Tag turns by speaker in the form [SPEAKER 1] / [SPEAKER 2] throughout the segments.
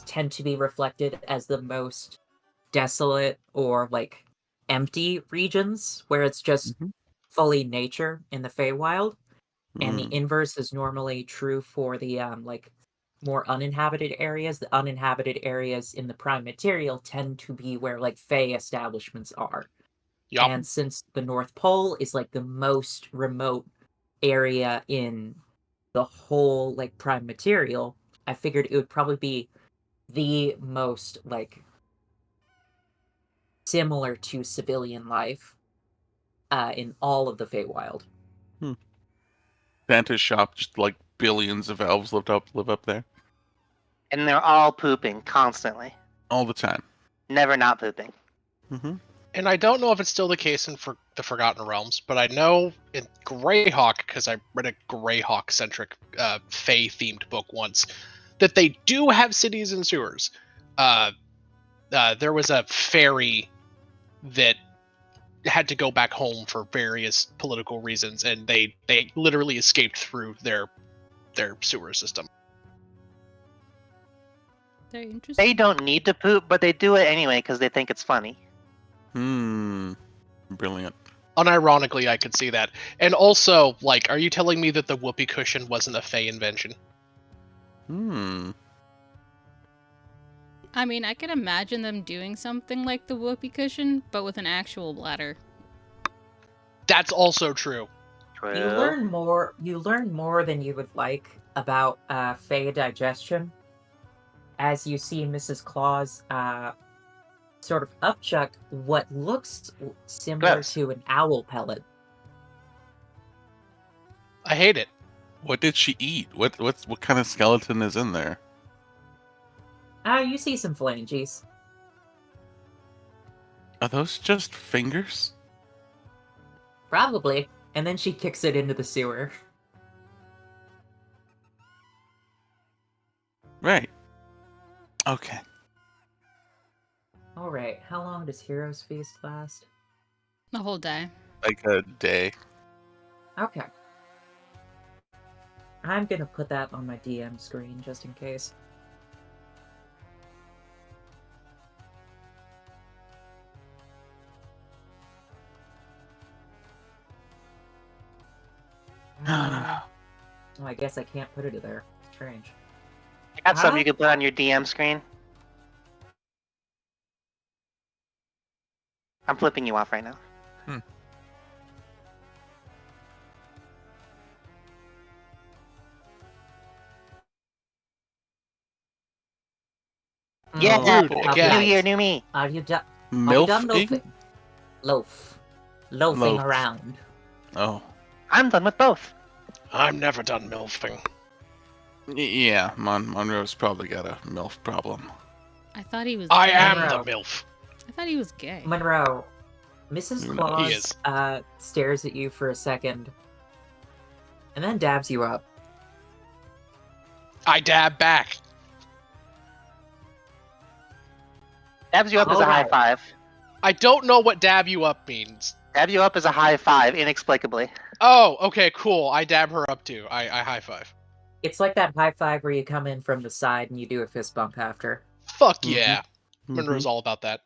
[SPEAKER 1] tend to be reflected as the most desolate or like empty regions where it's just
[SPEAKER 2] Mhm.
[SPEAKER 1] fully nature in the Feywild, and
[SPEAKER 2] Mm,
[SPEAKER 1] the inverse is normally true for the um like more uninhabited areas. The uninhabited areas in the prime material tend to be where like Fey establishments are.
[SPEAKER 3] Yup.
[SPEAKER 1] And since the North Pole is like the most remote area in the whole like prime material, I figured it would probably be the most like similar to civilian life uh, in all of the Feywild.
[SPEAKER 2] Santa's shop, just like billions of elves lived up live up there
[SPEAKER 3] and they're all pooping constantly,
[SPEAKER 2] all the time.
[SPEAKER 3] never not pooping.
[SPEAKER 1] Mm-hmm.
[SPEAKER 2] hmm
[SPEAKER 4] And I don't know if it's still the case in for the Forgotten Realms, but I know in Greyhawk, because I read a Greyhawk centric uh, Fey themed book once, that they do have cities and sewers. Uh, uh, there was a fairy that had to go back home for various political reasons, and they, they literally escaped through their their sewer system.
[SPEAKER 5] Very interesting.
[SPEAKER 3] They don't need to poop, but they do it anyway because they think it's funny.
[SPEAKER 2] Hmm. Brilliant.
[SPEAKER 4] Unironically, I could see that. And also, like, are you telling me that the whoopee cushion wasn't a Fey invention?
[SPEAKER 2] Hmm.
[SPEAKER 5] I mean, I could imagine them doing something like the whoopee cushion, but with an actual bladder.
[SPEAKER 4] That's also true.
[SPEAKER 3] True.
[SPEAKER 1] You learn more. You learn more than you would like about uh, Fey digestion, as you see Mrs. Claus uh, sort of upchuck what looks similar
[SPEAKER 3] Gross.
[SPEAKER 1] to an owl pellet.
[SPEAKER 4] I hate it.
[SPEAKER 2] What did she eat? What what's what kind of skeleton is in there?
[SPEAKER 1] Ah, you see some phalanges.
[SPEAKER 2] Are those just fingers?
[SPEAKER 1] Probably. And then she kicks it into the sewer.
[SPEAKER 2] Right. Okay.
[SPEAKER 1] All right. How long does Heroes Feast last?
[SPEAKER 5] The whole day.
[SPEAKER 2] Like a day.
[SPEAKER 1] Okay. I'm gonna put that on my DM screen just in case. Uh, well, I guess I can't put it there. Strange.
[SPEAKER 3] Got something
[SPEAKER 1] Huh?
[SPEAKER 3] you can put on your DM screen. I'm flipping you off right now. Yeah,
[SPEAKER 1] Oh,
[SPEAKER 3] dude,
[SPEAKER 1] all
[SPEAKER 4] again. Yeah.
[SPEAKER 3] New
[SPEAKER 1] right.
[SPEAKER 3] year, new me.
[SPEAKER 1] Are you done? Are you done
[SPEAKER 2] Milfing?
[SPEAKER 1] loafing? Loaf. Loafing
[SPEAKER 2] Loaf.
[SPEAKER 1] around.
[SPEAKER 2] Oh.
[SPEAKER 3] I'm done with both.
[SPEAKER 4] I'm never done milfing.
[SPEAKER 2] Y- Yeah, Mon- Monroe's probably got a MILF problem.
[SPEAKER 5] I thought he was.
[SPEAKER 4] I
[SPEAKER 5] gay.
[SPEAKER 4] am
[SPEAKER 1] Monroe.
[SPEAKER 4] the milf.
[SPEAKER 5] I thought he was gay.
[SPEAKER 1] Monroe, Mrs.
[SPEAKER 2] He
[SPEAKER 1] Claus
[SPEAKER 4] is.
[SPEAKER 1] uh, stares at you for a second and then dabs you up.
[SPEAKER 4] I dab back.
[SPEAKER 3] Dabs you up as a high
[SPEAKER 1] Alright.
[SPEAKER 3] five.
[SPEAKER 4] I don't know what dab you up means.
[SPEAKER 3] Dab you up as a high five, inexplicably.
[SPEAKER 4] Oh, okay, cool. I dab her up too. I, I high five.
[SPEAKER 1] It's like that high five where you come in from the side and you do a fist bump after.
[SPEAKER 4] Fuck
[SPEAKER 2] Mhm.
[SPEAKER 4] yeah. Monroe's all about that.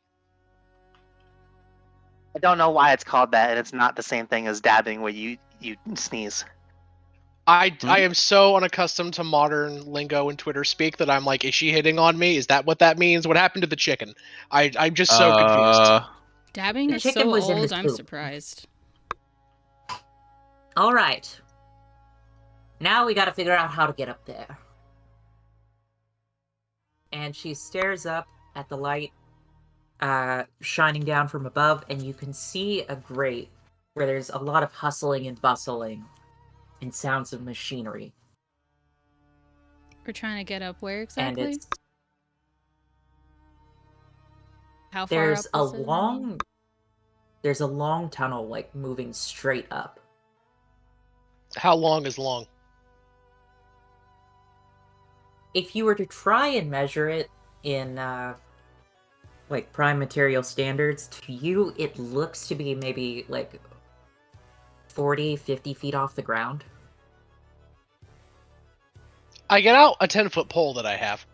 [SPEAKER 3] I don't know why it's called that, and it's not the same thing as dabbing where you you sneeze.
[SPEAKER 4] I,
[SPEAKER 2] Mhm.
[SPEAKER 4] I am so unaccustomed to modern lingo and Twitter speak that I'm like, is she hitting on me? Is that what that means? What happened to the chicken? I, I'm just
[SPEAKER 1] Mm-hmm.
[SPEAKER 4] so confused.
[SPEAKER 2] Uh,
[SPEAKER 5] Dabbing
[SPEAKER 1] The
[SPEAKER 5] is
[SPEAKER 1] chicken
[SPEAKER 5] so
[SPEAKER 1] was in
[SPEAKER 5] old.
[SPEAKER 1] his
[SPEAKER 5] I'm
[SPEAKER 1] poop.
[SPEAKER 5] surprised.
[SPEAKER 1] All right. Now we gotta figure out how to get up there. And she stares up at the light uh, shining down from above, and you can see a grate where there's a lot of hustling and bustling and sounds of machinery.
[SPEAKER 5] We're trying to get up where exactly?
[SPEAKER 1] And it's
[SPEAKER 5] How far
[SPEAKER 1] there's
[SPEAKER 5] up
[SPEAKER 1] a
[SPEAKER 5] is it?
[SPEAKER 1] long there's a long tunnel like moving straight up.
[SPEAKER 4] How long is long?
[SPEAKER 1] If you were to try and measure it in uh like prime material standards, to you it looks to be maybe like 40, 50 feet off the ground.
[SPEAKER 4] I get out a 10 foot pole that I have.